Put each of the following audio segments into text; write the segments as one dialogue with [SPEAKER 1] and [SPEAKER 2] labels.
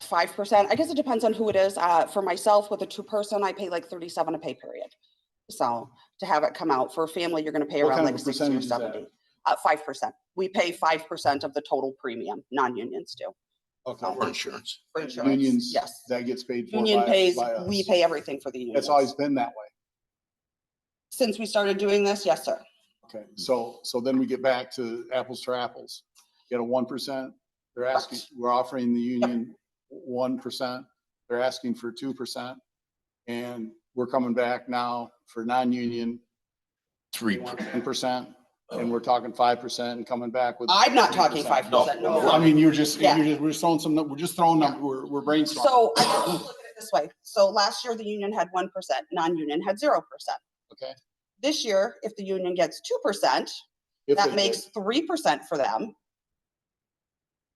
[SPEAKER 1] five percent. I guess it depends on who it is. Uh, for myself with a two person, I pay like thirty-seven a pay period. So to have it come out for a family, you're gonna pay
[SPEAKER 2] What
[SPEAKER 1] around
[SPEAKER 2] kind of
[SPEAKER 1] like
[SPEAKER 2] a
[SPEAKER 1] sixty or
[SPEAKER 2] percentage is that?
[SPEAKER 1] seventy. Uh, five percent. We pay five percent of the total premium, non-unions do.
[SPEAKER 2] Okay.
[SPEAKER 3] For insurance.
[SPEAKER 1] For
[SPEAKER 2] And
[SPEAKER 1] insurance,
[SPEAKER 2] Unions,
[SPEAKER 1] Yes.
[SPEAKER 2] that gets paid for.
[SPEAKER 1] Union
[SPEAKER 2] by-
[SPEAKER 1] pays,
[SPEAKER 2] by
[SPEAKER 1] we
[SPEAKER 2] us.
[SPEAKER 1] pay everything for the union.
[SPEAKER 2] It's always been that way.
[SPEAKER 1] Since we started doing this, yes, sir.
[SPEAKER 2] Okay, Mm-hmm. so, so then we get back to apples to apples. You got a one percent, they're asking, we're offering the union one percent, they're asking for two percent. And we're coming back now for non-union,
[SPEAKER 3] Three.
[SPEAKER 2] ten percent, Oh. and we're talking five percent and coming back with.
[SPEAKER 1] I'm not talking
[SPEAKER 2] 3%.
[SPEAKER 1] five percent, no.
[SPEAKER 2] Well, I mean, you're just,
[SPEAKER 1] Yeah.
[SPEAKER 2] you're just, we're throwing some, we're just throwing, num- we're, we're brainstorming.
[SPEAKER 1] So I guess look at it this way. So last year, the union had one percent, non-union had zero percent.
[SPEAKER 2] Okay.
[SPEAKER 1] This year, if the union gets two percent,
[SPEAKER 2] If they
[SPEAKER 1] that
[SPEAKER 2] did.
[SPEAKER 1] makes three percent for them.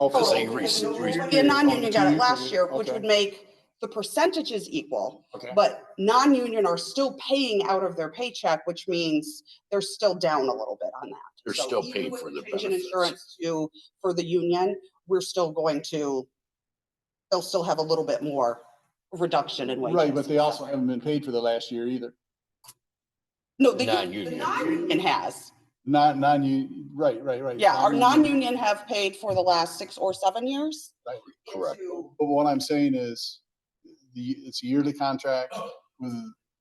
[SPEAKER 2] Oh, for
[SPEAKER 3] Just
[SPEAKER 2] the
[SPEAKER 3] like
[SPEAKER 2] whole-
[SPEAKER 3] recent-
[SPEAKER 2] for
[SPEAKER 3] recent-
[SPEAKER 1] The non-union got it last year, which
[SPEAKER 2] Okay,
[SPEAKER 1] would make the percentages equal,
[SPEAKER 2] okay.
[SPEAKER 1] but non-union are still paying out of their paycheck, which means they're still down a little bit on that.
[SPEAKER 3] They're
[SPEAKER 1] So
[SPEAKER 3] still
[SPEAKER 1] even
[SPEAKER 3] paid
[SPEAKER 1] with
[SPEAKER 3] for the
[SPEAKER 1] change in
[SPEAKER 3] benefits.
[SPEAKER 1] Insurance to, for the union, we're still going to, they'll still have a little bit more reduction in wages.
[SPEAKER 2] Right, but they also haven't been paid for the last year either.
[SPEAKER 1] No, the union, the
[SPEAKER 3] Non-union.
[SPEAKER 1] non-union has.
[SPEAKER 2] Not, non-union, right, right, right.
[SPEAKER 1] Yeah, our non-union have paid for the last six or seven years.
[SPEAKER 2] Right.
[SPEAKER 3] Correct.
[SPEAKER 1] into-
[SPEAKER 2] But what I'm saying is, the, it's a yearly contract with,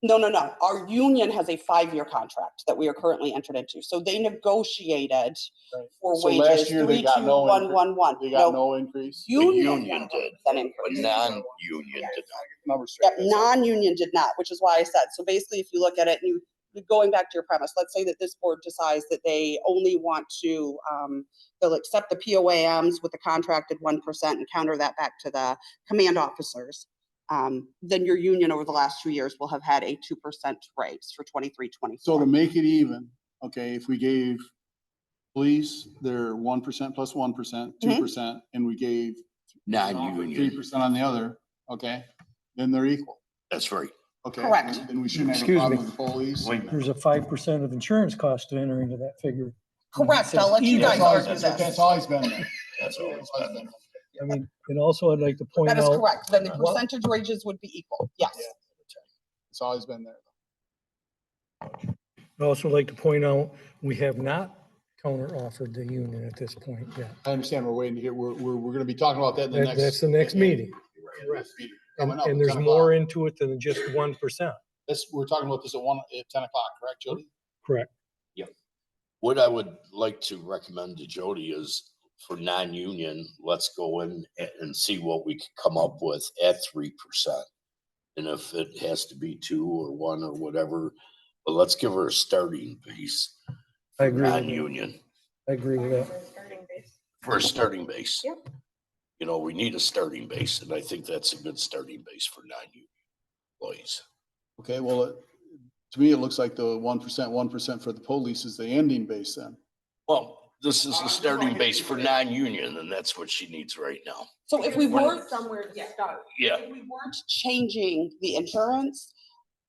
[SPEAKER 1] No, no, no. Our union has a five-year contract that we are currently entered into. So they negotiated
[SPEAKER 2] Right.
[SPEAKER 1] for
[SPEAKER 2] So last
[SPEAKER 1] wages,
[SPEAKER 2] year they
[SPEAKER 1] three, two,
[SPEAKER 2] got no
[SPEAKER 1] one,
[SPEAKER 2] incre-
[SPEAKER 1] one, one.
[SPEAKER 2] they got
[SPEAKER 1] No,
[SPEAKER 2] no increase.
[SPEAKER 1] Union
[SPEAKER 3] union
[SPEAKER 1] got
[SPEAKER 3] did,
[SPEAKER 1] an
[SPEAKER 3] But
[SPEAKER 1] increase.
[SPEAKER 3] non-union did not.
[SPEAKER 2] Numbers
[SPEAKER 1] Yep,
[SPEAKER 2] straight. That's all.
[SPEAKER 1] non-union did not, which is why I said, so basically, if you look at it, you, going back to your premise, let's say that this board decides that they only want to, um, they'll accept the POAMs with the contracted one percent and counter that back to the command officers. Um, then your union over the last two years will have had a two percent raise for twenty-three,
[SPEAKER 2] So to
[SPEAKER 1] twenty-four.
[SPEAKER 2] make it even, okay, if we gave police their one percent plus one percent,
[SPEAKER 1] Mm-hmm.
[SPEAKER 2] two percent, and we gave three
[SPEAKER 3] Non-union,
[SPEAKER 2] percent on the other, okay, then they're equal,
[SPEAKER 3] that's right.
[SPEAKER 2] okay?
[SPEAKER 1] Correct.
[SPEAKER 2] Then- Then we shouldn't have a
[SPEAKER 4] Excuse
[SPEAKER 2] problem
[SPEAKER 4] me.
[SPEAKER 2] with the police.
[SPEAKER 3] Wait a minute.
[SPEAKER 4] There's a five percent of insurance cost to enter into that figure.
[SPEAKER 1] Correct, I'll let you
[SPEAKER 4] Yeah,
[SPEAKER 1] guys
[SPEAKER 2] That's always,
[SPEAKER 1] argue
[SPEAKER 2] that's
[SPEAKER 1] this.
[SPEAKER 2] always been there.
[SPEAKER 3] That's all it's been.
[SPEAKER 4] I mean, and also I'd like to point
[SPEAKER 1] That is
[SPEAKER 4] out,
[SPEAKER 1] correct, then the
[SPEAKER 4] Well-
[SPEAKER 1] percentage wages would be equal, yes.
[SPEAKER 2] It's always been there.
[SPEAKER 4] I'd also like to point out, we have not counter offered the union at this point yet.
[SPEAKER 2] I understand we're waiting to hear, we're, we're, we're gonna be talking about that in the
[SPEAKER 4] That-
[SPEAKER 2] next.
[SPEAKER 4] That's the next meeting.
[SPEAKER 2] Correct.
[SPEAKER 4] And,
[SPEAKER 2] Coming up
[SPEAKER 4] and
[SPEAKER 2] at
[SPEAKER 4] there's
[SPEAKER 2] 10
[SPEAKER 4] more
[SPEAKER 2] o'clock.
[SPEAKER 4] into it than just one percent.
[SPEAKER 2] This, we're talking about this at one, at ten o'clock, correct, Jody?
[SPEAKER 4] Correct.
[SPEAKER 3] What I would like to recommend to Jody is for non-union, let's go in a- and see what we could come up with at three percent. And if it has to be two or one or whatever, but let's give her a starting base,
[SPEAKER 4] I agree. with you.
[SPEAKER 3] non-union,
[SPEAKER 4] I agree with that.
[SPEAKER 5] Starting base.
[SPEAKER 3] for a starting base.
[SPEAKER 5] Yep.
[SPEAKER 3] You know, we need a starting base, and I think that's a good starting base for non-union employees.
[SPEAKER 2] Okay, well, it- to me, it looks like the one percent, one percent for the police is the ending base then.
[SPEAKER 3] Well, this is the starting base for non-union, and that's what she needs right now.
[SPEAKER 1] So if we were.
[SPEAKER 5] Somewhere to start.
[SPEAKER 3] Yeah,
[SPEAKER 1] if we weren't changing the insurance,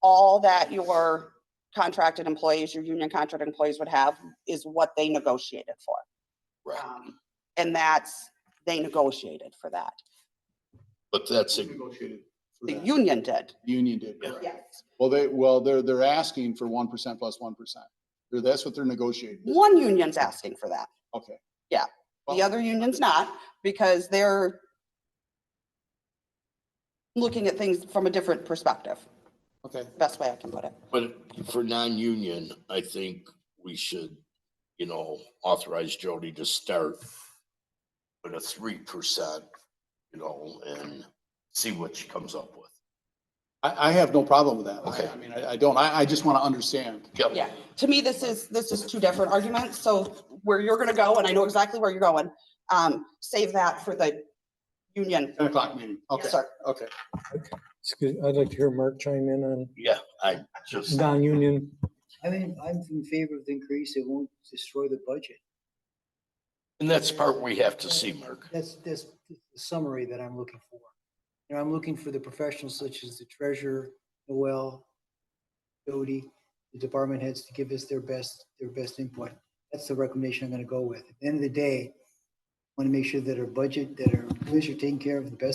[SPEAKER 1] all that your contracted employees, your union contracted employees would have is what they negotiated for.
[SPEAKER 3] right.
[SPEAKER 1] Um, And that's, they negotiated for that.
[SPEAKER 3] But that's a,
[SPEAKER 2] Negotiated. for
[SPEAKER 1] The
[SPEAKER 2] that.
[SPEAKER 1] union did.
[SPEAKER 2] Union did.
[SPEAKER 3] Yeah.
[SPEAKER 2] correct.
[SPEAKER 1] Yes.
[SPEAKER 2] Well, they, well, they're, they're asking for one percent plus one percent. That's what they're negotiating.
[SPEAKER 1] One union's asking for that.
[SPEAKER 2] Okay.
[SPEAKER 1] The other union's not because they're looking at things from a different perspective,
[SPEAKER 2] Okay,
[SPEAKER 1] best way I can put it.
[SPEAKER 3] but for non-union, I think we should, you know, authorize Jody to start with a three percent, you know, and see what she comes up with.
[SPEAKER 2] I, I have no problem with that. I-
[SPEAKER 3] Okay.
[SPEAKER 2] I mean, I, I don't, I, I just want to understand.
[SPEAKER 3] Yep.
[SPEAKER 1] Yeah, to me, this is, this is two different arguments, so where you're gonna go, and I know exactly where you're going, um, save that for the union.
[SPEAKER 2] Ten o'clock meeting. Okay,
[SPEAKER 1] sir.
[SPEAKER 2] okay.
[SPEAKER 4] Excuse, I'd like to hear Mark chime in on
[SPEAKER 3] Yeah, I just,
[SPEAKER 4] non-union.
[SPEAKER 6] I mean, I'm in favor of the increase. It won't destroy the budget.
[SPEAKER 3] and that's the part we have to see, Mark.
[SPEAKER 6] That's, that's the summary that I'm looking for. You know, I'm looking for the professionals such as the treasurer, Noel, Jody, the department heads to give us their best, their best input. That's the recommendation I'm gonna go with. At the end of the day, want to make sure that our budget, that our, employees are taken care of the best